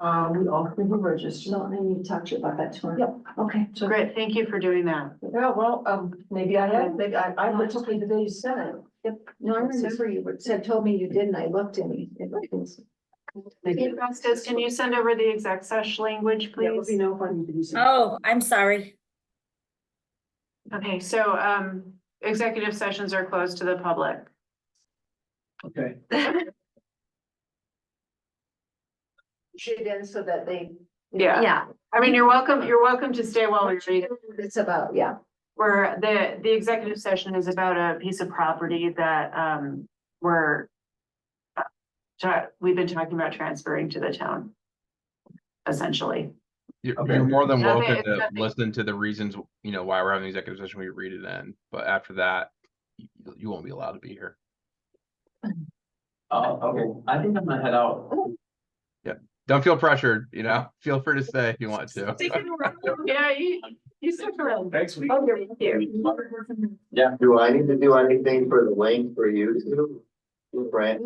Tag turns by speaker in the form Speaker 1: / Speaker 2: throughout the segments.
Speaker 1: Um, we all can be registered.
Speaker 2: So I need to talk to you about that tomorrow. Okay.
Speaker 1: So-
Speaker 3: Great, thank you for doing that.
Speaker 1: Yeah, well, um, maybe I have, maybe I, I looked up the day you said it.
Speaker 2: No, I remember you were- said, told me you did and I looked and you- it was.
Speaker 3: Hey, Vasquez, can you send over the exact sesh language,
Speaker 1: That would
Speaker 3: please?
Speaker 1: be no fun to do. so.
Speaker 4: Oh, I'm sorry.
Speaker 3: Okay, so, um, executive sessions are closed to the public.
Speaker 1: Okay.
Speaker 2: Should end so that they.
Speaker 3: Yeah.
Speaker 4: Yeah,
Speaker 3: I mean, you're welcome, you're welcome to stay while we read.
Speaker 2: It's about, yeah.
Speaker 3: Where the, the executive session is about a piece of property that, um, we're uh, ta- we've been talking about transferring to the town. Essentially.
Speaker 5: You're,
Speaker 1: Okay.
Speaker 5: you're more than
Speaker 3: Okay,
Speaker 5: welcome
Speaker 3: it's
Speaker 5: to
Speaker 3: nothing.
Speaker 5: listen to the reasons, you know, why we're having the executive session, we read it in, but after that, you, you won't be allowed to be here.
Speaker 6: Oh, okay, I think I'm gonna head out.
Speaker 5: Don't feel pressured, you know, feel free to stay if you want to.
Speaker 3: Yeah, you, you stick around.
Speaker 6: Thanks, we.
Speaker 3: Oh, you're- you.
Speaker 6: Yeah.
Speaker 7: Do I need to do anything for the link for you to, Brent?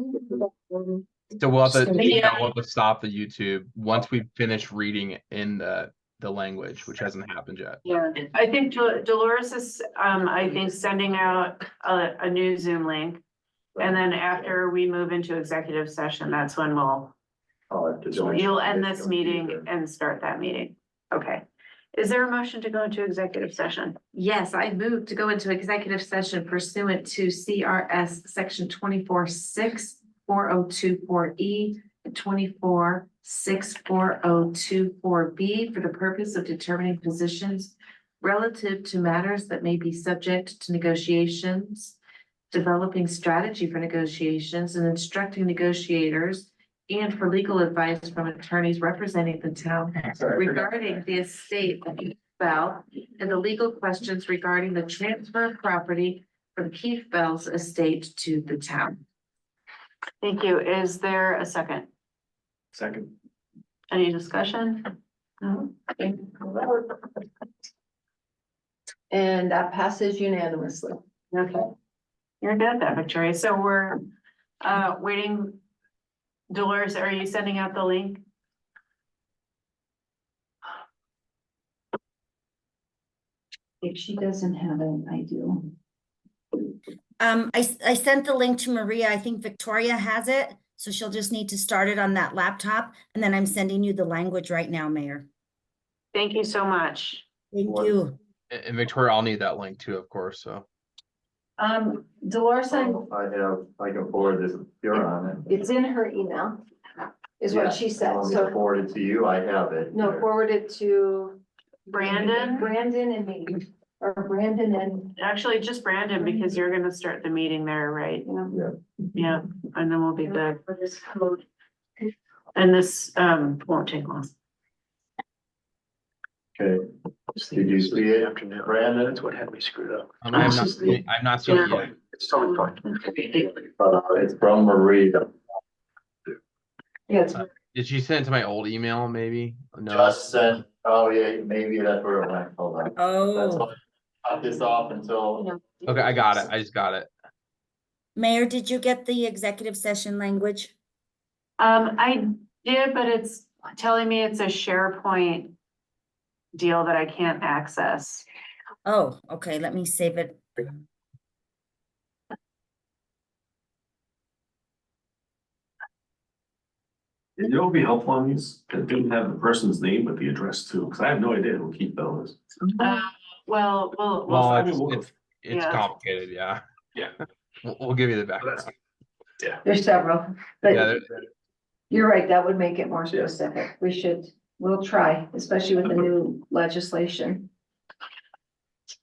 Speaker 5: So we'll have to, you know,
Speaker 3: Yeah.
Speaker 5: we'll have to stop the YouTube once we finish reading in the, the language, which hasn't happened yet.
Speaker 3: Yeah, I think Dol- Dolores is, um, I think sending out a, a new Zoom link. And then after we move into executive session, that's when we'll,
Speaker 7: I'll have to join.
Speaker 3: you'll end this meeting and start that meeting. Okay. Is there a motion to go into executive session?
Speaker 8: Yes, I move to go into executive session pursuant to CRS section twenty-four six four oh two four E and twenty-four six four oh two four B for the purpose of determining positions relative to matters that may be subject to negotiations, developing strategy for negotiations and instructing negotiators and for legal advice from attorneys representing the town regarding the estate of Keith Bell and the legal questions regarding the transfer of property from Keith Bell's estate to the town.
Speaker 3: Thank you. Is there a second?
Speaker 6: Second.
Speaker 3: Any discussion? No?
Speaker 2: And that passes unanimously.
Speaker 3: Okay. You're good at that, Victoria. So we're, uh, waiting. Dolores, are you sending out the link?
Speaker 2: If she doesn't have it, I do.
Speaker 4: Um, I, s- I sent the link to Maria. I think Victoria has it, so she'll just need to start it on that laptop. And then I'm sending you the language right now, Mayor.
Speaker 3: Thank you so much.
Speaker 4: Thank
Speaker 5: Wonderful.
Speaker 4: you.
Speaker 5: And and Victoria, I'll need that link too, of course, so.
Speaker 2: Um, Dolores,
Speaker 7: I
Speaker 2: I'm,
Speaker 7: have, I can forward this, you're on it.
Speaker 2: it's in her email, is
Speaker 7: Yeah,
Speaker 2: what she said,
Speaker 7: I'll
Speaker 2: so,
Speaker 7: Forward it to you, I have it.
Speaker 2: no, forward it to.
Speaker 3: Brandon?
Speaker 2: Brandon and me, or Brandon and,
Speaker 3: Actually, just Brandon, because you're gonna start the meeting there, right?
Speaker 7: Yeah.
Speaker 3: Yeah, and then we'll be back. And this, um, won't take long.
Speaker 7: Okay, did you see it, Brandon? That's
Speaker 6: what had me screwed up.
Speaker 5: Um, I'm not,
Speaker 7: Absolutely.
Speaker 5: I'm not seeing it yet.
Speaker 6: It's
Speaker 3: totally fine.
Speaker 7: Uh, it's from Maria,
Speaker 2: yeah,
Speaker 5: Did she send it to my old email, maybe? No,
Speaker 7: just sent, oh yeah, maybe that's where it went, hold on. That's
Speaker 4: Oh,
Speaker 7: why I Cut this off until,
Speaker 5: okay, I got it, I just got it.
Speaker 4: Mayor, did you get the executive session language?
Speaker 3: Um, I did, but it's telling me it's a SharePoint deal that I can't access.
Speaker 4: Oh, okay, let me save it.
Speaker 6: You know, it'd be helpful on these, it didn't have the person's name, but the address too, because I have no idea who Keith Bell is.
Speaker 3: Uh, well, well, well,
Speaker 5: Well,
Speaker 6: I
Speaker 5: it's,
Speaker 6: mean, we'll-
Speaker 5: it's, it's
Speaker 3: Yeah.
Speaker 5: complicated, yeah.
Speaker 6: Yeah.
Speaker 5: We'll, we'll give you the background.
Speaker 6: that's-
Speaker 2: there's several, but.
Speaker 5: Yeah, there-
Speaker 2: You're right, that would make it more
Speaker 6: Yeah.
Speaker 2: specific. We should, we'll try, especially with the new legislation.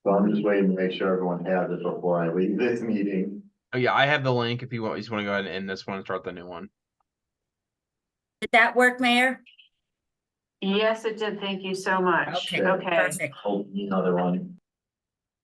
Speaker 7: so I'm just waiting to make sure everyone has it before I leave this meeting.
Speaker 5: oh, yeah, I have the link if you want, you just wanna go ahead and end this one and start the new one.
Speaker 4: Did that work, Mayor?
Speaker 3: yes, it did. Thank you so much.
Speaker 4: Okay,
Speaker 3: Okay,
Speaker 4: perfect.
Speaker 7: Hold another one.